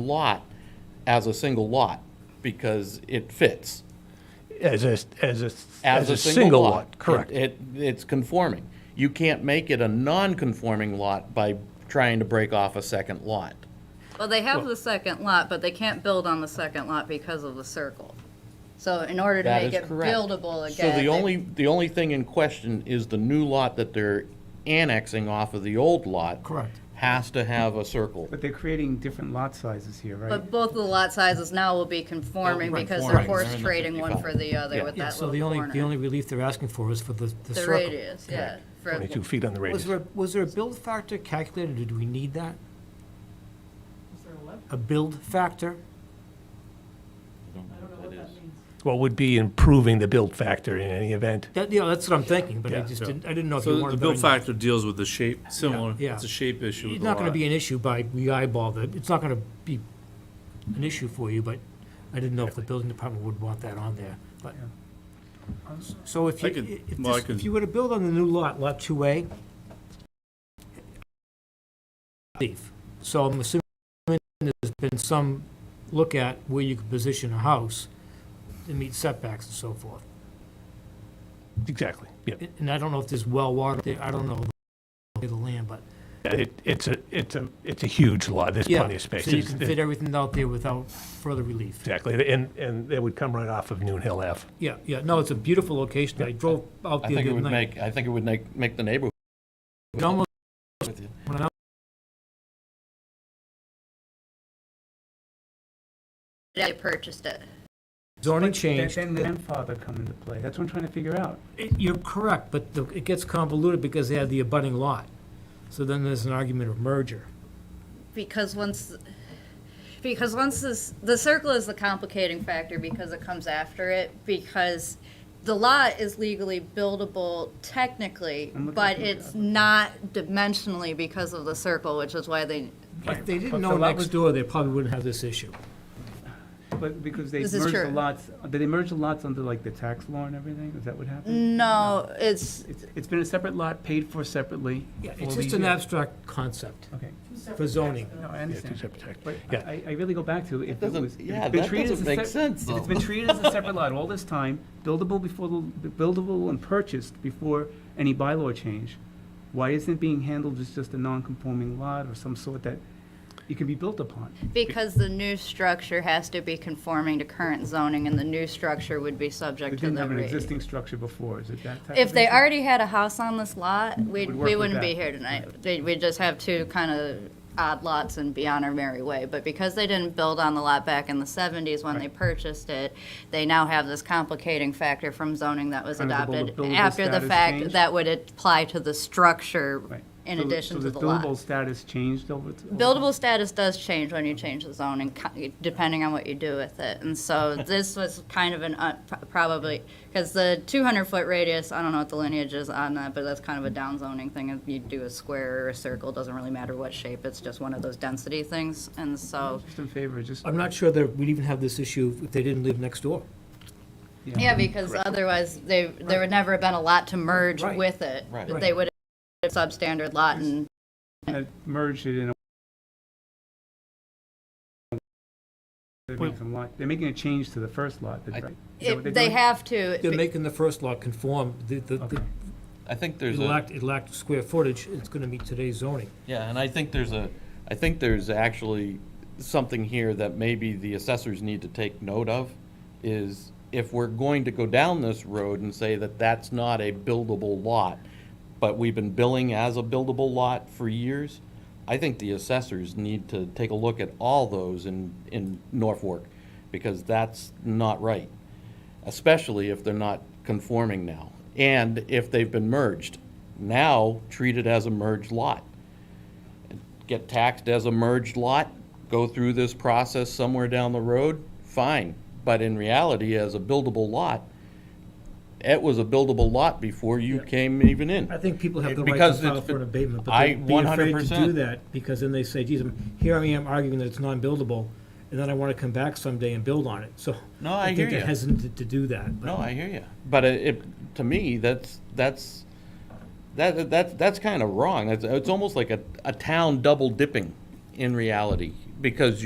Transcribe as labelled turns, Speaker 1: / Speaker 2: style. Speaker 1: lot as a single lot because it fits
Speaker 2: As a, as a,
Speaker 1: as a single lot.
Speaker 2: correct.
Speaker 1: It, it- it's conforming. You can't make it a non-conforming lot by trying to break off a second lot.
Speaker 3: Well, they have the second lot, but they can't build on the second lot because of the circle. So in order to
Speaker 1: That
Speaker 3: make
Speaker 1: is
Speaker 3: it
Speaker 1: correct.
Speaker 3: buildable
Speaker 1: So
Speaker 3: again.
Speaker 1: the
Speaker 3: they-
Speaker 1: only, the only thing in question is the new lot that they're annexing off of the old lot.
Speaker 4: Correct.
Speaker 1: Has to have a circle.
Speaker 5: But they're creating different lot sizes here, right?
Speaker 3: But both of the lot sizes now will be conforming
Speaker 1: Right,
Speaker 3: because they're
Speaker 1: right.
Speaker 3: horse
Speaker 1: They're in the
Speaker 3: trading one
Speaker 1: 55.
Speaker 3: for the other
Speaker 1: Yeah.
Speaker 3: with
Speaker 4: Yeah,
Speaker 3: that
Speaker 4: so the
Speaker 3: little
Speaker 4: only, the
Speaker 3: corner.
Speaker 4: only relief they're asking for is for the, the
Speaker 3: The
Speaker 4: circle.
Speaker 3: radius, yeah. for-
Speaker 2: 22 feet on the
Speaker 4: Was
Speaker 2: radius.
Speaker 4: there, was there a build factor calculated, or do we need that? A build factor?
Speaker 2: What would be improving the build factor in any event?
Speaker 4: That, you know, that's what I'm thinking, but I
Speaker 2: Yeah.
Speaker 4: just didn't, I didn't know if you
Speaker 6: So
Speaker 4: wanted.
Speaker 6: the
Speaker 4: that
Speaker 6: build
Speaker 4: or not.
Speaker 6: factor deals with the shape, similar,
Speaker 4: Yeah.
Speaker 6: it's a shape issue with
Speaker 4: It's
Speaker 6: the
Speaker 4: not gonna
Speaker 6: lot.
Speaker 4: be an issue by, we eyeball that, it's not gonna be an issue for you, but I didn't know if the building department would want that on there, but. So if
Speaker 6: I
Speaker 4: you,
Speaker 6: could-
Speaker 4: if
Speaker 6: well, I
Speaker 4: this, if
Speaker 6: could-
Speaker 4: you were to build on the new lot, lot two A. Leaf, so I'm assuming there's been some look at where you could position a house to meet setbacks and so forth.
Speaker 2: Exactly, yeah.
Speaker 4: And- And I don't know if there's well water there, I don't know the land, but
Speaker 2: It, it's a, it's a, it's a huge lot, there's
Speaker 4: Yeah,
Speaker 2: plenty of space.
Speaker 4: So you
Speaker 2: It's-
Speaker 4: can
Speaker 2: it-
Speaker 4: fit everything out there without further relief.
Speaker 2: Exactly, and, and it would come right off of Noon Hill F.
Speaker 4: Yeah, yeah, no, it's a beautiful location. I drove out
Speaker 1: I
Speaker 4: there
Speaker 1: think
Speaker 4: the
Speaker 1: it
Speaker 4: other
Speaker 1: would
Speaker 4: night.
Speaker 1: make, I think it would make, make the neighborhood
Speaker 4: It almost,
Speaker 1: with you.
Speaker 4: when I
Speaker 3: They purchased it.
Speaker 4: zoning
Speaker 5: Then
Speaker 4: changed,
Speaker 5: then the grandfather come into play, that's what I'm trying to figure out.
Speaker 4: it- you're correct, but the- it gets convoluted because they had the abutting lot. So then there's an argument of merger.
Speaker 3: because once, because once this, the circle is the complicating factor because it comes after it, because the lot is legally buildable technically,
Speaker 5: I'm looking
Speaker 3: but
Speaker 5: at the-
Speaker 3: it's not dimensionally because of the circle, which is why they,
Speaker 4: If they
Speaker 5: But
Speaker 4: didn't
Speaker 5: the
Speaker 4: know
Speaker 5: lot
Speaker 4: next
Speaker 5: was-
Speaker 4: door, they probably wouldn't have this issue.
Speaker 5: But because they
Speaker 3: This is
Speaker 5: merged the
Speaker 3: true.
Speaker 5: lots, did they merge the lots under like the tax law and everything? Is that what
Speaker 3: Mm.
Speaker 5: happened?
Speaker 3: no, it's,
Speaker 5: It's, it's been a separate lot, paid for separately.
Speaker 4: Yeah,
Speaker 5: for
Speaker 4: it's
Speaker 5: all
Speaker 4: just
Speaker 5: these
Speaker 4: an
Speaker 5: years.
Speaker 4: abstract concept
Speaker 5: Okay,
Speaker 4: for zoning.
Speaker 5: no,
Speaker 2: Yeah,
Speaker 5: I
Speaker 2: two
Speaker 5: understand.
Speaker 2: separate tax-
Speaker 5: But
Speaker 2: yeah.
Speaker 5: I, I really go back to, if it
Speaker 1: doesn't-
Speaker 5: was. if it's
Speaker 1: yeah,
Speaker 5: been
Speaker 1: that
Speaker 5: treated as
Speaker 1: doesn't
Speaker 5: a
Speaker 1: make
Speaker 5: sep-
Speaker 1: sense,
Speaker 5: If it's
Speaker 1: though.
Speaker 5: been treated as a separate lot all this time, buildable before, the buildable and purchased before any bylaw change, why isn't it being handled as just a non-conforming lot or some sort that it can be built upon?
Speaker 3: because the new structure has to be conforming to current zoning, and the new structure would be
Speaker 5: They
Speaker 3: subject to
Speaker 5: didn't
Speaker 3: the
Speaker 5: have an
Speaker 3: rate.
Speaker 5: existing structure before, is it that type of?
Speaker 3: If they
Speaker 5: issue?
Speaker 3: already had a house on this lot, we'd,
Speaker 5: Would work
Speaker 3: we
Speaker 5: with
Speaker 3: wouldn't be
Speaker 5: that.
Speaker 3: here tonight. They- We'd just have two kind of odd lots and be on our merry way. But because they didn't build on the lot back in the 70s when they purchased it, they now have this complicating factor from zoning that was
Speaker 5: Kind of the buil-
Speaker 3: adopted
Speaker 5: buildable
Speaker 3: after the
Speaker 5: status
Speaker 3: fact
Speaker 5: change.
Speaker 3: that would apply to the structure
Speaker 5: Right.
Speaker 3: in
Speaker 5: So the-
Speaker 3: addition to the
Speaker 5: So the buildable
Speaker 3: lot.
Speaker 5: status changed over. t- over-
Speaker 3: Buildable status does change when you change the zoning, co- depending on what you do with it. And so this was kind of an, un- probably, because the 200-foot radius, I don't know what the lineage is on that, but that's kind of a down zoning thing. If you do a square or a circle, doesn't really matter what shape, it's just one of those density things. And so,
Speaker 5: Just in favor, just.
Speaker 4: I'm not sure that we'd even have this issue if they didn't live next door.
Speaker 3: yeah, because otherwise, they, there would never have been a lot to merge
Speaker 4: Right.
Speaker 3: with it.
Speaker 1: Right.
Speaker 3: They would have substandard lot and
Speaker 5: uh, Merged it in a. They're making some lot- they're making a change to the first lot, that's right? Is that what
Speaker 3: If
Speaker 5: they're
Speaker 3: they
Speaker 5: doing?
Speaker 3: have to.
Speaker 4: They're making the first lot conform, the, the- the,
Speaker 5: Okay.
Speaker 1: I think
Speaker 4: it
Speaker 1: there's a.
Speaker 4: lacked, it lacked square footage, it's gonna meet today's zoning.
Speaker 1: Yeah, and I think there's a, I think there's actually something here that maybe the assessors need to take note of, is if we're going to go down this road and say that that's not a buildable lot, but we've been billing as a buildable lot for years, I think the assessors need to take a look at all those in, in Norfolk, because that's not right, especially if they're not conforming now, and if they've been merged. Now, treat it as a merged lot get taxed as a merged lot, go through this process somewhere down the road, fine. But in reality, as a buildable lot, it was a buildable lot before you came even
Speaker 4: I
Speaker 1: in.
Speaker 4: think people have the right to
Speaker 1: Because
Speaker 4: file
Speaker 1: it's-
Speaker 4: for an abatement, but
Speaker 1: I-
Speaker 4: they'd be afraid to
Speaker 1: 100%.
Speaker 4: do that, because then they say, geez, I'm, here I am arguing that it's non-buildable, and then I want to come back someday and build on it, so.
Speaker 1: No, I hear
Speaker 4: think they're
Speaker 1: ya.
Speaker 4: hesitant to do that,
Speaker 1: No,
Speaker 4: but
Speaker 1: I hear you. But it, it- to me, that's, that's, that, that, that's kind of wrong. It's, it's almost like a, a town double dipping in reality, because you.